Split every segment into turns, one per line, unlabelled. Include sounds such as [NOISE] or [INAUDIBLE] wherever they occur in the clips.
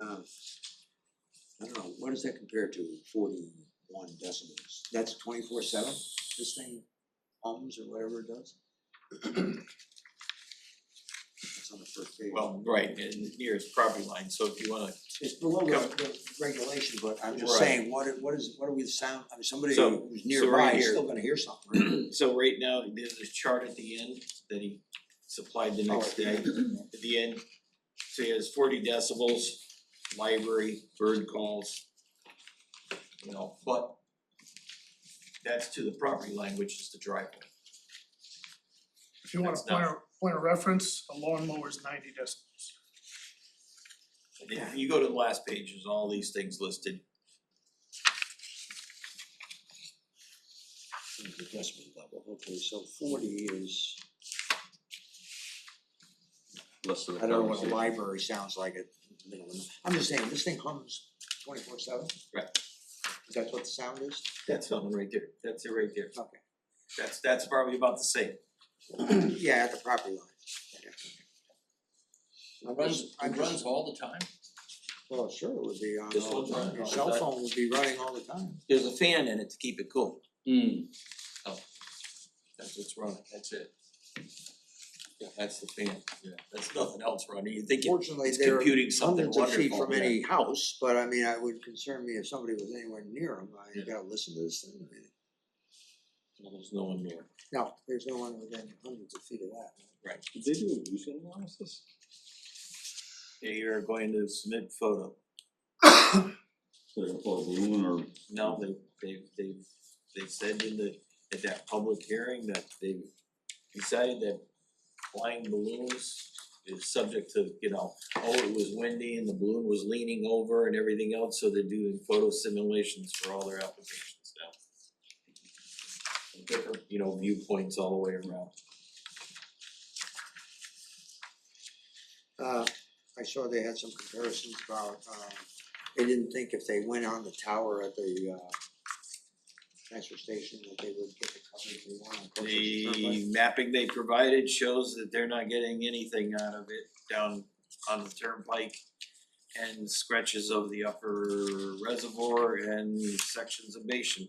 uh, I don't know, what does that compare to forty-one decibels? That's twenty-four seven, this thing hums or whatever it does? It's on the first page.
Well, right, and near its property line, so if you wanna,
It's below the the regulation, but I'm just
Right.
saying, what it- what is, what are we sound, I mean, somebody
So-
who's
so
nearby
right
is
here.
still gonna hear something. right?
so right now, there's a chart at the end that he supplied the next
Oh,
day. At the end, so he has forty decibels, library, bird calls. You know, but that's to the property line, which is the driveway.
If you want a
That's not-
point of, point of reference, a lawnmower is ninety decibels.
And If you go to the last page, there's all these things listed.
The decimal level, okay, so forty is,
less than a
I don't know what a
conversation.
library sounds like at the middle of the, I'm just saying, this thing hums twenty-four seven?
Right.
Is that what the sound is? [CLEARS THROAT]
That's something right there, that's it right there.
Okay.
That's that's probably about the same.
Yeah, at the property line. I'm just, I'm just,
all the time.
well, sure, it would be on
This
all
one's
the time,
running
your
all the
cell
time.
phone would be running all the time.
There's a fan in it to keep it cool.
Mm,
That's what's running, that's it. Yeah, that's the fan, yeah, that's nothing else running, you think it-
Fortunately,
it's
they're
computing something
hundreds
wonderful.
of feet from
yeah.
any house, but I mean, I would concern me if somebody was anywhere near them, I you gotta listen to this thing, I mean,
Well, There's no one there.
no, there's no one within hundreds of feet of that.
did they do illusion analysis?
Okay, you're going to
[COUGHS]
submit photo,
Like a full balloon or
now they they they they said in the, at that public hearing that they decided that flying balloons is subject to, you know, oh, it was windy and the balloon was leaning over and everything else, so they're doing photo simulations for all their applications now. Different, you know, viewpoints all the way around.
Uh, I saw they had some comparisons about, um, they didn't think if they went on the tower at the, uh, transfer station that they would get the coverage they want on Colchester Turnpike.
The mapping they provided shows that they're not getting anything out of it down on the turnpike. And scratches of the upper reservoir and sections of basin.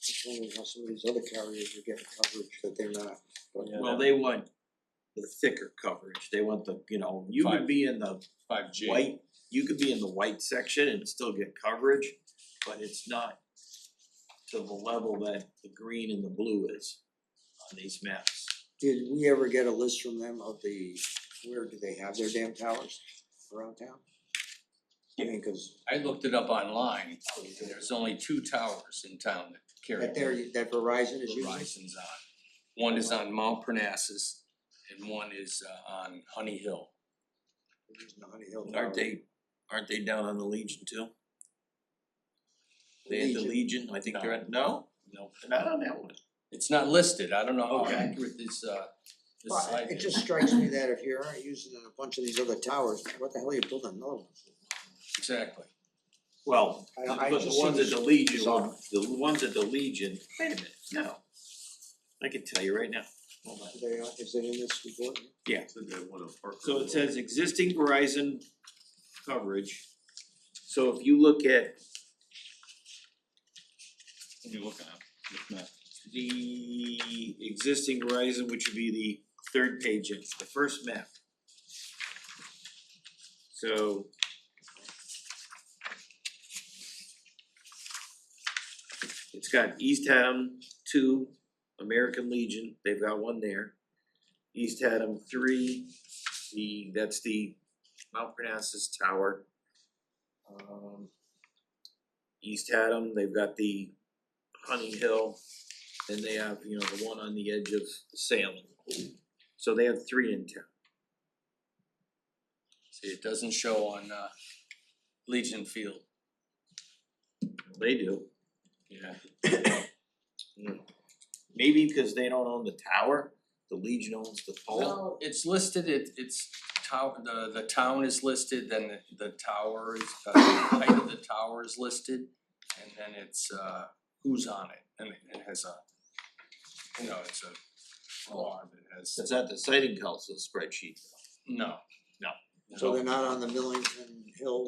Just wondering how some of these other carriers are getting coverage that they're not. but-
Yeah.
Well, they want the thicker coverage, they want the, you know, you could
Five.
be in the
five G.
white, you could be in the white section and still get coverage. But it's not to the level that the green and the blue is on these maps.
Did we ever get a list from them of the, where do they have their damn towers around town? I mean, cause
I looked it up online, and there's only two towers in town that carry
that there, that Verizon is using,
Verizon's on. One is on Mount Parnassus and one is uh, on Honey Hill.
they're using the Honey Hill Tower.
Aren't they, aren't they down on the Legion too? They had the
Legion.
Legion, I think they're at, no,
No,
they're not on that one.
it's not listed, I don't know how
Okay.
accurate this uh this
Well,
slide
it
is.
just strikes me that if you're already using a bunch of these other towers, what the hell are you building another one for?
Exactly,
Well,
I-
the-
I
but the
just see
ones at
this
the Legion,
bizarre.
the ones at the Legion, wait a minute, no. I can tell you right now, hold on.
Are they, uh, is it in this report?
So it says existing Verizon coverage. So if you look at
what are you looking at? It's not-
the existing Verizon, which would be the third page, of the first map. So. It's got East Haddam two, American Legion, they've got one there. East Haddam three, the, that's the Mount Parnassus Tower. Um. East Haddam, they've got the Honey Hill, and they have, you know, the one on the edge of Salem. So they have three in town.
see, it doesn't show on uh Legion Field.
They do. [COUGHS]
Yeah.
Maybe because they don't own the tower, the Legion owns the pole.
Well, it's listed, it it's town, the the town is listed, then the- the tower is, uh, the height of the tower is listed. And then it's uh who's on it, and it- it has a, you know, it's a alarm, it has,
It's not the sighting council spreadsheet.
no, no.
So they're not on the Millington Hill